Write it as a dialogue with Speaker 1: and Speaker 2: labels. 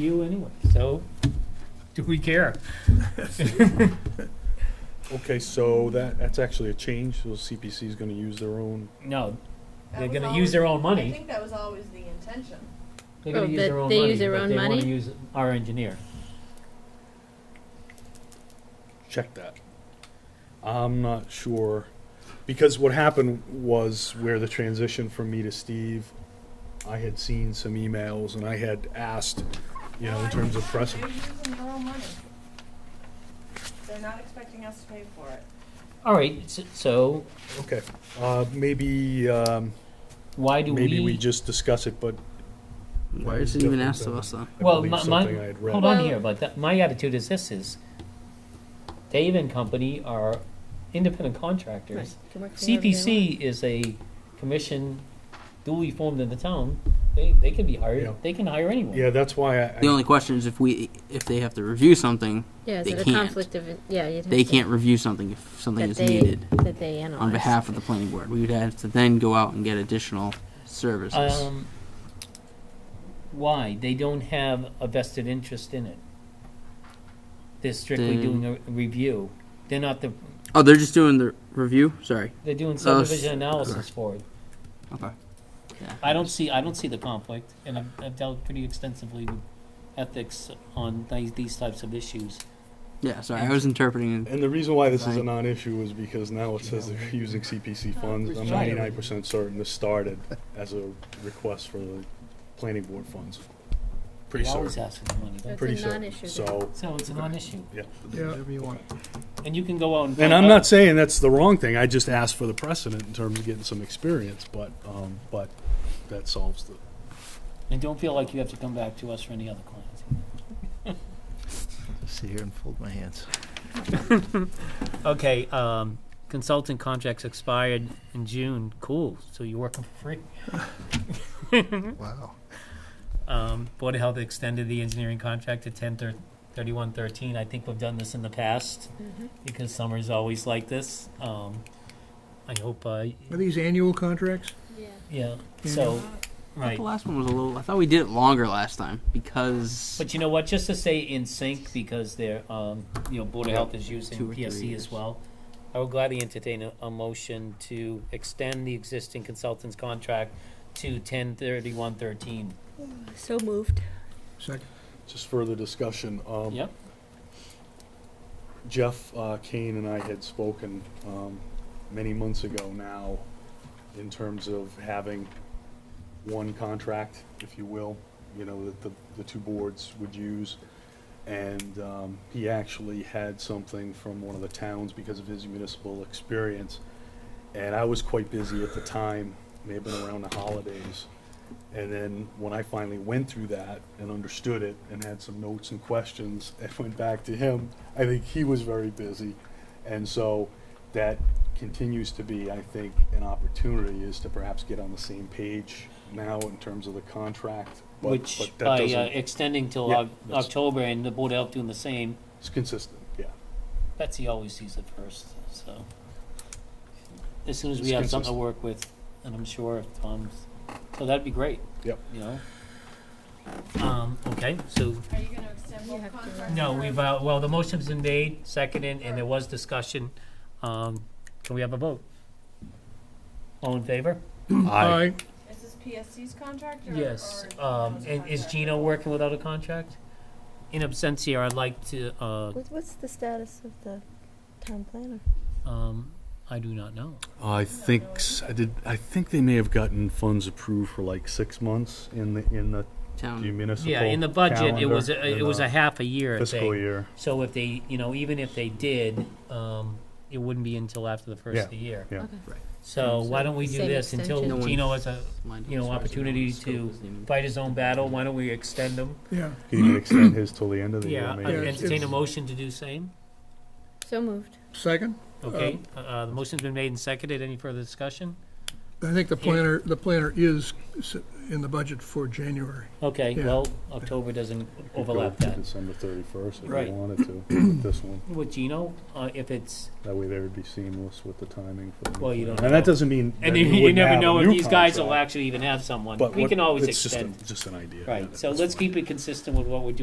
Speaker 1: you anyway, so do we care?
Speaker 2: Okay, so that, that's actually a change, so CPC is gonna use their own,
Speaker 1: No,
Speaker 3: That
Speaker 1: They're
Speaker 3: was
Speaker 1: gonna use their
Speaker 3: always-
Speaker 1: own money.
Speaker 3: I think that was always the intention.
Speaker 1: they're gonna
Speaker 4: Oh,
Speaker 1: use
Speaker 4: but
Speaker 1: their own
Speaker 4: they
Speaker 1: money,
Speaker 4: use their
Speaker 1: but
Speaker 4: own
Speaker 1: they wanna
Speaker 4: money?
Speaker 1: use our engineer.
Speaker 2: check that. I'm not sure, because what happened was where the transition from me to Steve, I had seen some emails and I had asked, you know, in terms of pressing.
Speaker 3: They're using their own money. They're not expecting us to pay for it.
Speaker 1: All right, s- so
Speaker 2: Okay, uh, maybe, um,
Speaker 1: why do we?
Speaker 2: maybe we just discuss it, but.
Speaker 5: Why is it even asked of us then?
Speaker 2: I
Speaker 1: Well,
Speaker 2: believe
Speaker 1: my- my-
Speaker 2: something I had read.
Speaker 1: Hold on
Speaker 4: Well-
Speaker 1: here, but that, my attitude is this is Dave and company are independent contractors. CPC is a commission duly formed in the town. They, they can be
Speaker 2: Yeah.
Speaker 1: hired, they can hire anyone.
Speaker 2: Yeah, that's why I-
Speaker 5: The
Speaker 2: I,
Speaker 5: only question is if we if they have to review something,
Speaker 4: Yeah, is
Speaker 5: They
Speaker 4: it a
Speaker 5: can't.
Speaker 4: conflict of, in- yeah, you'd have to.
Speaker 5: they can't review something if something
Speaker 4: that
Speaker 5: is
Speaker 4: they-
Speaker 5: needed
Speaker 4: That they
Speaker 1: Oh,
Speaker 4: analyze.
Speaker 5: on behalf of the planning board. We would have to then go out and get additional services.
Speaker 1: Um, why? They don't have a vested interest in it. They're strictly
Speaker 5: Then-
Speaker 1: doing a review. They're not the,
Speaker 5: oh, they're just doing the review. Sorry.
Speaker 1: they're doing
Speaker 5: Oh, s-
Speaker 1: subdivision analysis for it.
Speaker 5: Okay.
Speaker 1: I don't see, I don't see the conflict, and I've, I've dealt pretty extensively with ethics on these, these types of issues.
Speaker 5: Yeah. Sorry, I was interpreting. it.
Speaker 2: And the reason why this is a
Speaker 5: Right.
Speaker 2: non-issue is because now it says they're using CPC funds. I'm
Speaker 1: Right.
Speaker 2: ninety-nine percent certain this started as a request for the planning board funds. Pretty
Speaker 1: They always
Speaker 2: certain,
Speaker 1: ask for the money,
Speaker 4: That's
Speaker 2: pretty
Speaker 4: a
Speaker 2: certain.
Speaker 4: non-issue then.
Speaker 2: So,
Speaker 1: so it's a non-issue.
Speaker 2: yeah.
Speaker 6: Whatever you want.
Speaker 1: And you can go out and.
Speaker 2: And
Speaker 1: find
Speaker 2: I'm
Speaker 1: out-
Speaker 2: not saying that's the wrong thing. I just asked for the precedent in terms of getting some experience, but, um, but that solves the.
Speaker 1: And don't feel like you have to come back to us for any other clients.
Speaker 6: Sit here and fold my hands.
Speaker 1: Okay, um, consultant contracts expired in June, cool, so you're working for free.
Speaker 6: Wow.
Speaker 1: Um, Board of Health extended the engineering contract to ten thir- thirty-one thirteen. I think we've done this in the past
Speaker 4: Mm-hmm.
Speaker 1: because summer's always like this. Um, I hope, uh,
Speaker 6: Are these annual contracts?
Speaker 4: Yeah.
Speaker 1: yeah, so, right.
Speaker 5: The last one was a little. I thought we did it longer last time because
Speaker 1: But you know what, just to say in sync, because they're, um, you know, Board of Health is using
Speaker 5: Two or three
Speaker 1: PSC as
Speaker 5: years.
Speaker 1: well. I would gladly entertain a, a motion to extend the existing consultant's contract to ten thirty-one thirteen.
Speaker 4: So moved.
Speaker 6: Second.
Speaker 2: Just further discussion. Um,
Speaker 1: Yep.
Speaker 2: Jeff uh, Kane and I had spoken um, many months ago now in terms of having one contract, if you will, you know, that the, the two boards would use. And um, he actually had something from one of the towns because of his municipal experience. And I was quite busy at the time, may have been around the holidays. And then when I finally went through that and understood it and had some notes and questions and went back to him, I think he was very busy. And so that continues to be, I think, an opportunity is to perhaps get on the same page now in terms of the contract. but-
Speaker 1: Which
Speaker 2: but that
Speaker 1: by uh,
Speaker 2: doesn't-
Speaker 1: extending till
Speaker 2: Yeah,
Speaker 1: Oc-
Speaker 2: that's-
Speaker 1: October and the Board of Health doing the same,
Speaker 2: It's consistent, yeah.
Speaker 1: Betsy always sees it first, so. As soon as we
Speaker 2: It's
Speaker 1: have something to
Speaker 2: consistent.
Speaker 1: work with, and I'm sure if Tom's, so that'd be great.
Speaker 2: Yep.
Speaker 1: You know? Um, okay, so,
Speaker 3: Are you gonna extend
Speaker 4: You
Speaker 3: both
Speaker 4: have to-
Speaker 3: contracts?
Speaker 1: no,
Speaker 3: or-
Speaker 1: we've, uh, well, the motion's been made, seconded, and there was discussion. Um, can we have a vote? All in favor?
Speaker 6: Aye.
Speaker 3: Is this PSC's contract or?
Speaker 1: Yes,
Speaker 3: or
Speaker 1: um,
Speaker 3: Gino's
Speaker 1: and is
Speaker 3: contract?
Speaker 1: Gino working without a contract? In absentia, I'd like to, uh,
Speaker 4: What's the status of the town planner?
Speaker 1: um, I do not know.
Speaker 2: I think s- I did. I think they may have gotten funds approved for like six months in the in the
Speaker 5: town.
Speaker 2: municipal.
Speaker 1: Um, Yeah, in the budget, it
Speaker 2: calendar,
Speaker 1: was, a- it
Speaker 2: in
Speaker 1: was
Speaker 2: the
Speaker 1: a half a year
Speaker 2: fiscal
Speaker 1: thing.
Speaker 2: year.
Speaker 1: So if they, you know, even if they did, um, it wouldn't be until after the first of the year.
Speaker 2: Yeah.
Speaker 4: Okay.
Speaker 1: So why don't we do
Speaker 4: Same
Speaker 1: this until
Speaker 4: extension.
Speaker 5: No
Speaker 1: Gino
Speaker 5: one's
Speaker 1: has a,
Speaker 5: lined up
Speaker 1: you know,
Speaker 5: as far as
Speaker 1: opportunity
Speaker 5: scope
Speaker 1: to
Speaker 5: isn't even-
Speaker 1: fight his own battle, why don't we extend him?
Speaker 6: Yeah.
Speaker 2: He even extend his till the end of the
Speaker 1: Yeah,
Speaker 2: year.
Speaker 1: I'd
Speaker 2: maybe.
Speaker 6: it's-
Speaker 1: entertain a
Speaker 6: it's-
Speaker 1: motion to do same, uh,
Speaker 4: So moved.
Speaker 6: Second?
Speaker 1: okay? Uh, the motion's been made and seconded, any further discussion?
Speaker 6: I think the planner, the planner is s- in the budget for January.
Speaker 1: Okay,
Speaker 6: Yeah.
Speaker 1: well, October doesn't
Speaker 2: Could go
Speaker 1: overlap
Speaker 2: to
Speaker 1: that.
Speaker 2: December thirty-first if
Speaker 1: Right.
Speaker 2: you wanted to, with this one.
Speaker 1: With Gino, uh, if it's,
Speaker 2: That way there would be seamless with the timing for the.
Speaker 1: Well, you don't
Speaker 2: And that
Speaker 1: know.
Speaker 2: doesn't mean. that
Speaker 1: and
Speaker 2: we
Speaker 1: you, you
Speaker 2: wouldn't
Speaker 1: never
Speaker 2: have a
Speaker 1: know if
Speaker 2: new
Speaker 1: these guys will
Speaker 2: contract,
Speaker 1: actually even have someone.
Speaker 2: but
Speaker 1: We
Speaker 2: what-
Speaker 1: can always
Speaker 2: it's just a-
Speaker 1: extend.
Speaker 2: Just an idea. yeah,
Speaker 1: Right, so
Speaker 2: that's
Speaker 1: let's
Speaker 2: fine.
Speaker 1: keep it consistent with what we're doing